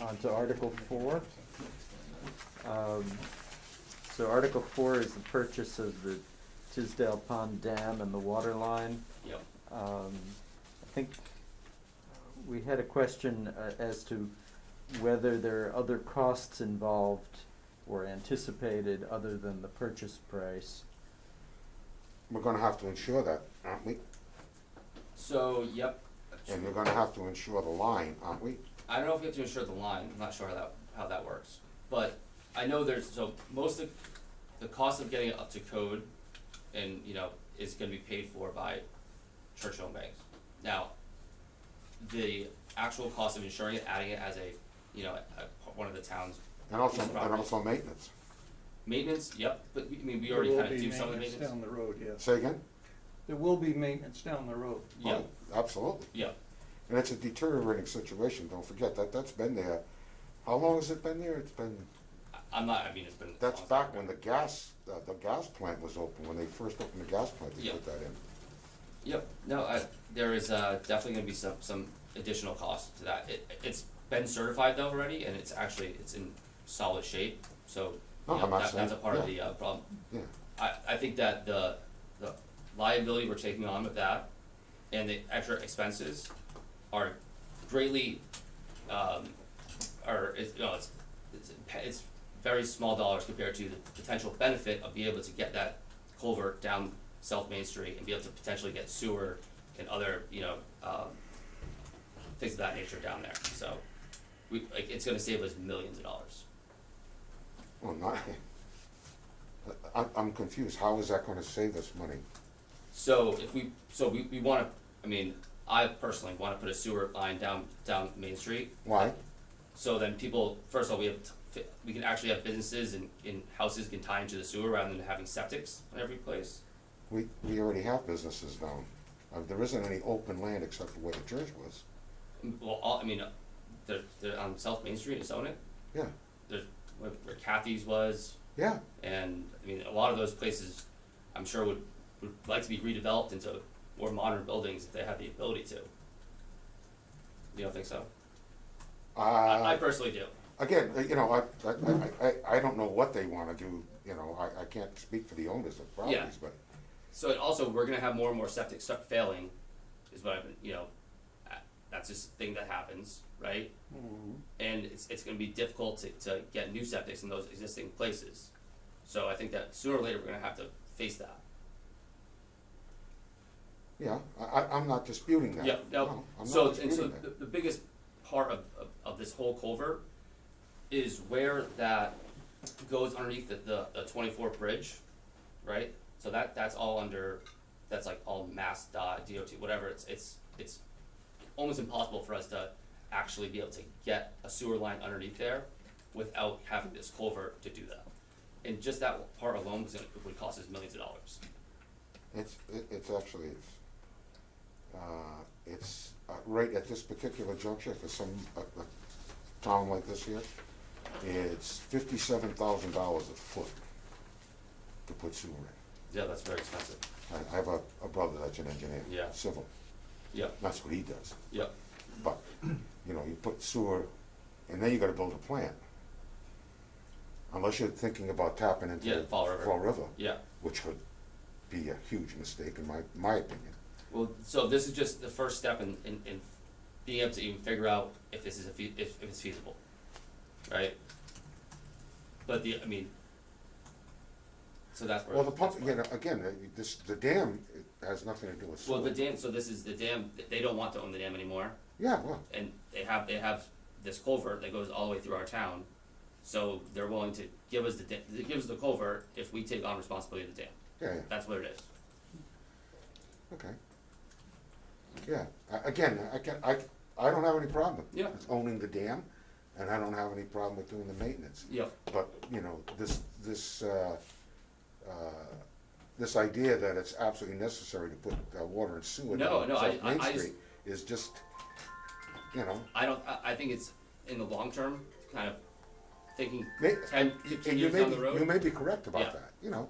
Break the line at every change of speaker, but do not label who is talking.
on to Article Four. Um, So Article Four is the purchase of the Tisdale Pond Dam and the water line.
Yep.
Um, I think we had a question uh, as to whether there are other costs involved or anticipated other than the purchase price.
We're gonna have to insure that, aren't we?
So, yep.
And we're gonna have to insure the line, aren't we?
I don't know if you have to insure the line, I'm not sure how that, how that works, but I know there's, so most of, the cost of getting it up to code and, you know, is gonna be paid for by Churchill banks. Now, the actual cost of insuring it, adding it as a, you know, a, one of the town's
And also,
It's
and
property.
also maintenance.
maintenance, yep, but, we- I mean, we
There
already
will
kinda
be
do some of the
maintenance
maintenance.
Down the road, yes.
Say again?
There will be maintenance down the road.
Yeah,
Oh, Absolutely.
yeah,
And it's a deteriorating situation, don't forget, that, that's been there. How long has it been there? It's been,
I- I'm not, I mean, it's been.
that's back when the gas, uh, the gas plant was open, when they first opened the gas plant, they
Yeah.
put that in.
Yep, no, I, there is, uh, definitely gonna be some, some additional cost to that. It, it's been certified though already, and it's actually, it's in solid shape, so, you
No,
know,
I'm not
that, that's a
saying-
part of the,
Oh, yeah.
uh, problem.
Yeah,
I, I think that the, the liability we're taking on with that and the extra expenses are greatly, um, are, is, you know, it's, it's, it's very small dollars compared to the potential benefit of being able to get that culvert down South Main Street and be able to potentially get sewer and other, you know, um, things of that nature down there, so we, like, it's gonna save us millions of dollars.
well, not, Oh, I, I'm confused, how is that gonna save us money?
So if we, so we, we wanna, I mean, I personally wanna put a sewer line down, down Main Street.
Why?
So then people, first of all, we have, t- we can actually have businesses and, and houses can tie into the sewer rather than having septics in every place.
We, we already have businesses down. Uh, there isn't any open land except for where the church was.
And, Well, all, I mean, uh, they're, they're on South Main Street, it's own it,
Yeah,
there's where where Kathy's was,
yeah,
and, I mean, a lot of those places, I'm sure would, would like to be redeveloped into more modern buildings if they have the ability to. You don't think so? I, I
uh,
personally do.
again, uh, you know, I, I, I, I, I don't know what they wanna do, you know, I, I can't speak for the owners of properties, but,
So it also, we're gonna have more and more septic stuff failing, is what I've been, you know, uh, that's just a thing that happens, right? And it's, it's gonna be difficult to, to get new septics in those existing places. So I think that sooner or later, we're gonna have to face that.
yeah, I, I, I'm not disputing that.
Yeah, no,
No, I'm
so, and
not
so
disputing
the,
that.
the biggest part of, of, of this whole culvert is where that goes underneath the, the, the twenty-four bridge, right? So that, that's all under, that's like all mass dot, DOT, whatever, it's, it's, it's almost impossible for us to actually be able to get a sewer line underneath there without having this culvert to do that. And just that part alone was gonna, would cost us millions of dollars.
It's, it- it's actually, it's, uh, it's, uh, right at this particular juncture for some, uh, uh, town like this here, it's fifty-seven thousand dollars a foot to put sewer in.
Yeah, that's very expensive.
I, I have a, a brother that's an engineer.
Yeah.
Civil,
Yep,
that's what he does,
yep,
but, you know, you put sewer, and then you gotta build a plant. Unless you're thinking about tapping into.
Yeah,
the
Fall River.
Fall River,
yeah.
which would be a huge mistake in my, my opinion.
Well, so this is just the first step in, in, in being able to even figure out if this is a fe- if, if it's feasible, right? But the, I mean, so that's where.
Well, the pump,
that's where-
again, again, uh, this, the dam it has nothing to do with
Well,
sewer.
the dam, so this is the dam, th- they don't want to own the dam anymore,
Yeah, well,
and they have, they have this culvert that goes all the way through our town. So they're willing to give us the da- they give us the culvert if we take on responsibility of the dam,
yeah, yeah,
that's what it is.
okay. Yeah, a- again, I can, I, I don't have any problem.
Yeah.
with Owning the dam, and I don't have any problem with doing the maintenance.
Yep,
But, you know, this, this, uh, uh, this idea that it's absolutely necessary to put uh, water and sewer
No,
down
no, I-
South Main
I- I just-
Street is just, you know,
I don't, I, I think it's in the long term, kind of thinking
may,
ten,
you-
fifteen
you
years
may
down
be,
the road.
you may be correct
Yeah.
about that, you know.